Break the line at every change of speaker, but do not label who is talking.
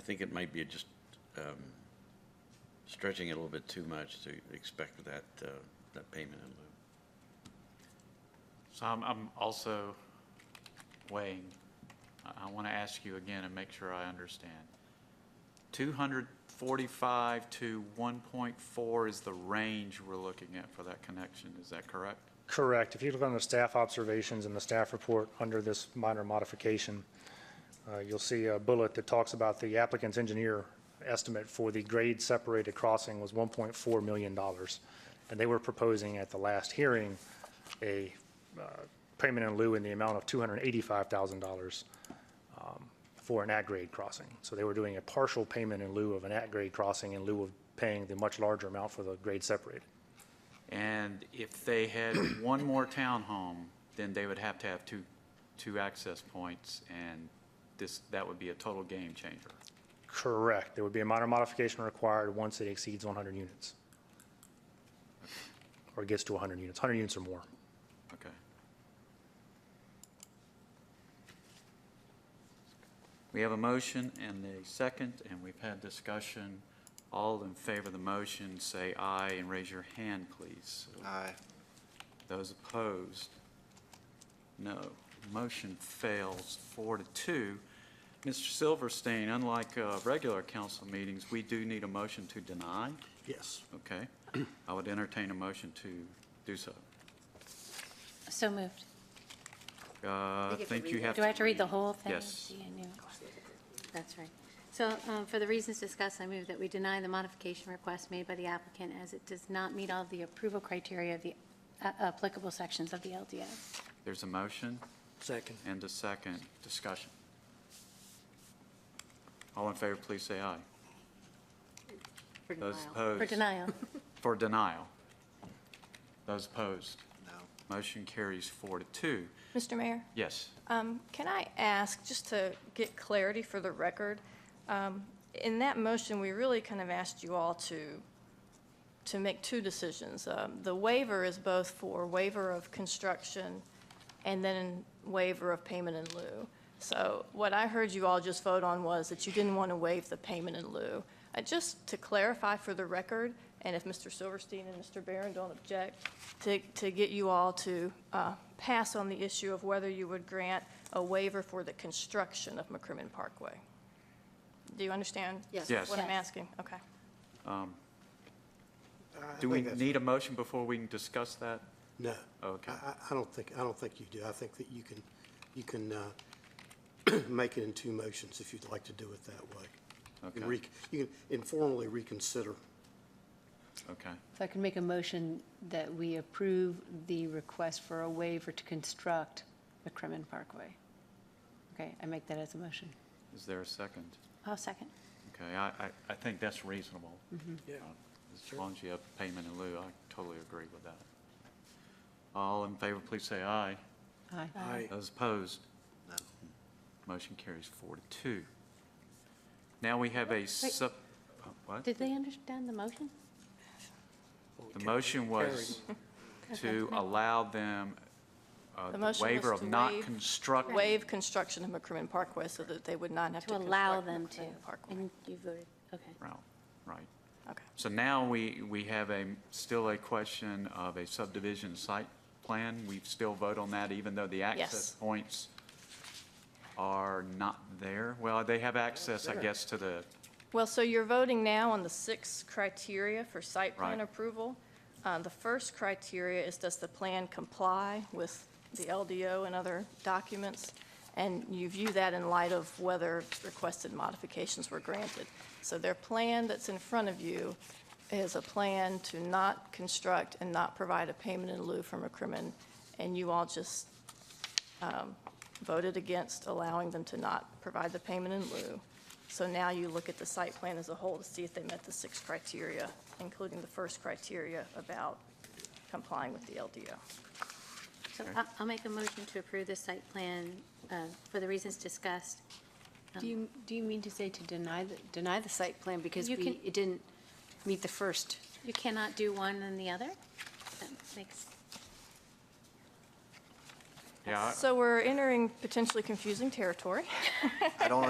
think it might be just um, stretching it a little bit too much to expect that, uh, that payment in lieu.
So I'm, I'm also weighing, I, I want to ask you again and make sure I understand. 245 to 1.4 is the range we're looking at for that connection, is that correct?
Correct. If you look on the staff observations and the staff report under this minor modification, uh, you'll see a bullet that talks about the applicant's engineer estimate for the grade separated crossing was $1.4 million. And they were proposing at the last hearing a uh, payment in lieu in the amount of $285,000 um, for an at-grade crossing. So they were doing a partial payment in lieu of an at-grade crossing in lieu of paying the much larger amount for the grade separated.
And if they had one more townhome, then they would have to have two, two access points, and this, that would be a total game changer.
Correct. There would be a minor modification required once it exceeds 100 units. Or gets to 100 units, 100 units or more.
Okay. We have a motion and a second, and we've had discussion. All in favor of the motion, say aye and raise your hand, please.
Aye.
Those opposed? No. Motion fails four to two. Mr. Silverstein, unlike uh, regular council meetings, we do need a motion to deny,
Yes.
okay? I would entertain a motion to do so.
So moved.
Uh, I
get to
think you
read it?
have to.
Do I have to read the whole thing?
Yes.
Gee, I knew.
That's right. So um, for the reasons discussed, I move that we deny the modification request made by the applicant as it does not meet all the approval criteria of the uh, applicable sections of the LDS.
There's a motion
Second.
and a second discussion. All in favor, please say aye.
For
Those
denial.
opposed?
For denial.
For denial. Those opposed?
No.
Motion carries four to two.
Mr. Mayor,
Yes.
um, can I ask, just to get clarity for the record, um, in that motion, we really kind of asked you all to, to make two decisions. Um, The waiver is both for waiver of construction and then waiver of payment in lieu. So what I heard you all just vote on was that you didn't want to waive the payment in lieu. Uh, Just to clarify for the record, and if Mr. Silverstein and Mr. Barron don't object, to, to get you all to uh, pass on the issue of whether you would grant a waiver for the construction of McCrimmon Parkway. Do you understand?
Yes.
Yes.
What I'm
Yes.
asking? Okay.
Do we
think that's-
need a motion before we can discuss that?
No.
Oh, Okay.
I, I I don't think, I don't think you do. I think that you can, you can uh, make it in two motions if you'd like to do it that way. You can
Okay.
rec- You can informally reconsider.
Okay.
If I could make a motion that we approve the request for a waiver to construct McCrimmon Parkway. Okay, I make that as a motion.
Is there a second?
I'll second.
Okay, I, I, I think that's reasonable.
Yeah.
Uh, As long as you have payment in lieu, I totally agree with that. All in favor, please say aye.
Aye.
Uh,
Aye.
Those opposed?
No.
Motion carries four to two. Now we have a sub, oh, what?
Did they understand the motion?
The motion was to allow them uh,
The
the
motion
waiver
was
of
to
not
waive-
construct.
Waive construction of McCrimmon Parkway so that they would not have to
To
construct
allow them to.
McCrimmon Parkway.
And you voted, okay.
Route, Right.
Okay.
So now we, we have a, still a question of a subdivision site plan. We still vote on that even though the access
Yes.
points are not there? Well, they have access, I guess, to the,
Well, so you're voting now on the six criteria for site plan
Right.
approval. Uh, The first criteria is, does the plan comply with the LDO and other documents? And you view that in light of whether requested modifications were granted. So their plan that's in front of you is a plan to not construct and not provide a payment in lieu for McCrimmon, and you all just voted against allowing them to not provide the payment in lieu. So now you look at the site plan as a whole to see if they met the six criteria, including the first criteria about complying with the LDO.
So I- I'll make a motion to approve the site plan uh, for the reasons discussed.
Do you, do you mean to say to deny, the deny the site plan because
You
we,
can-
it didn't meet the first?
You cannot do one and the other? That makes,
yeah, I- Uh,
So we're entering potentially confusing territory.
I don't